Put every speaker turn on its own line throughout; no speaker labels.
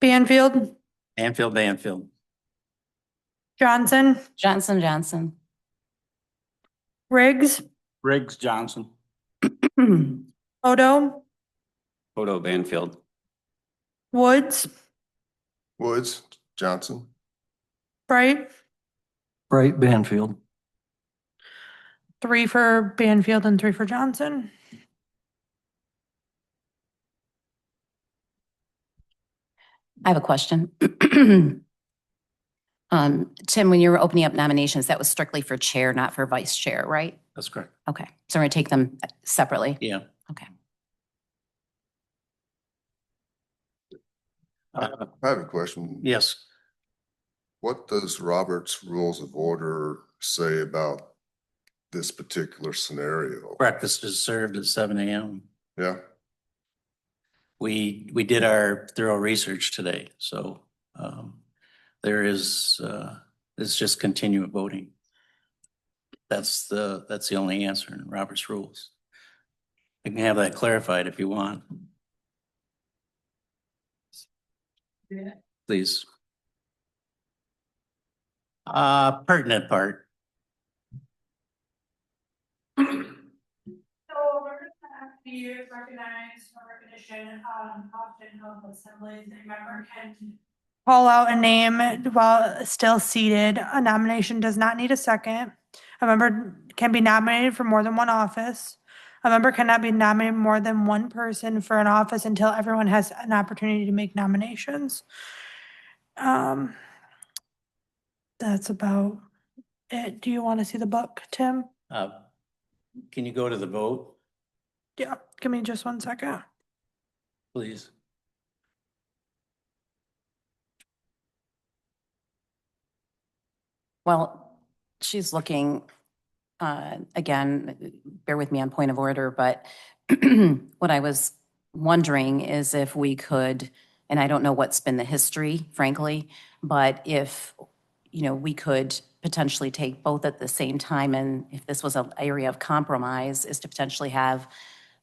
Banfield,
Banfield, Banfield.
Johnson,
Johnson, Johnson.
Riggs,
Riggs Johnson.
Odo,
Odo Banfield.
Woods,
Woods, Johnson,
Bright,
Bright Banfield.
three for Banfield and three for Johnson.
I have a question. Um, Tim, when you were opening up nominations, that was strictly for chair, not for vice chair, right?
That's correct.
Okay, so we're gonna take them separately.
Yeah.
Okay.
Uh,
I have a question.
Yes,
What does Robert's Rules of Order say about this particular scenario?
breakfast is served at seven AM.
Yeah,
We, we did our thorough research today, so um, there is, uh, it's just continued voting. That's the, that's the only answer in Robert's rules. I can have that clarified if you want. Please. Uh, pertinent part.
So Roberta Kennedy is recognized for recognition, um, often of assemblies, a member can call out a name while still seated. A nomination does not need a second. A member can be nominated for more than one office. A member cannot be nominated more than one person for an office until everyone has an opportunity to make nominations. Um, that's about it. Do you want to see the book, Tim?
Uh, Can you go to the vote,
Yeah, give me just one second.
please?
Well, she's looking, uh, again, bear with me on point of order, but what I was wondering is if we could, and I don't know what's been the history, frankly, but if, you know, we could potentially take both at the same time, and if this was an area of compromise, is to potentially have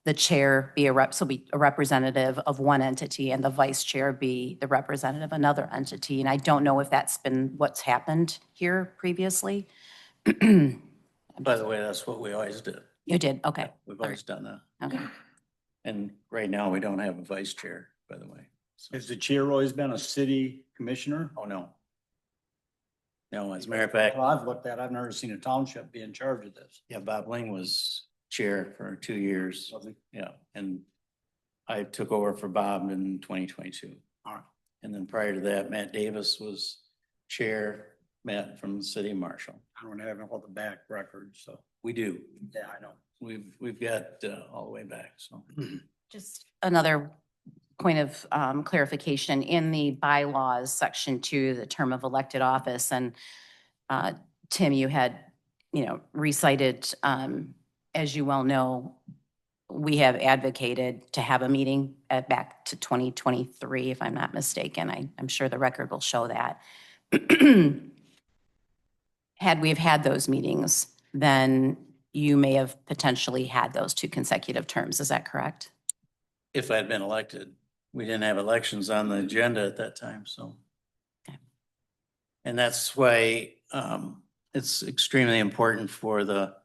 the chair be a rep, so be a representative of one entity and the vice chair be the representative of another entity. And I don't know if that's been what's happened here previously.
By the way, that's what we always do.
You did, okay,
We've
All
always done that.
okay.
And right now, we don't have a vice chair, by the way. So-
Has the chair always been a city commissioner?
Oh, no. No, as a matter of fact,
Well, I've looked at, I've never seen a township be in charge of this.
yeah, Bob Ling was chair for two years. Yeah, and I took over for Bob in twenty twenty-two.
All right.
And then prior to that, Matt Davis was chair, Matt from the city marshal.
I don't have all the back records, so,
We do.
yeah, I know.
We've, we've got uh, all the way back, so.
Just another point of um, clarification, in the bylaws, section two, the term of elected office, and uh, Tim, you had, you know, recited, um, as you well know, we have advocated to have a meeting at, back to 2023, if I'm not mistaken. I, I'm sure the record will show that. Had we have had those meetings, then you may have potentially had those two consecutive terms. Is that correct?
If I'd been elected, we didn't have elections on the agenda at that time, so.
Okay.
And that's why um it's extremely important for the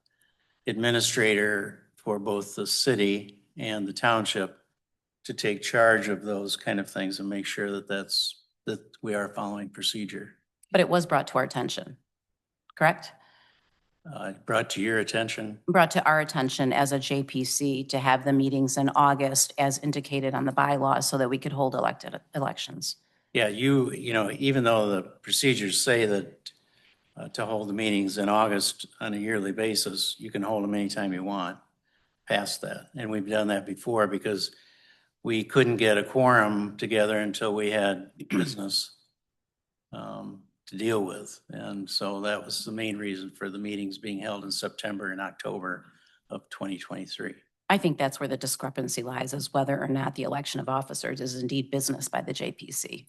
administrator for both the city and the township to take charge of those kind of things and make sure that that's, that we are following procedure.
But it was brought to our attention, correct?
Uh, brought to your attention,
Brought to our attention as a JPC to have the meetings in August as indicated on the bylaws so that we could hold elected elections.
Yeah, you, you know, even though the procedures say that uh, to hold the meetings in August on a yearly basis, you can hold them anytime you want past that. And we've done that before because we couldn't get a quorum together until we had business um, to deal with. And so that was the main reason for the meetings being held in September and October of 2023.
I think that's where the discrepancy lies is whether or not the election of officers is indeed business by the JPC.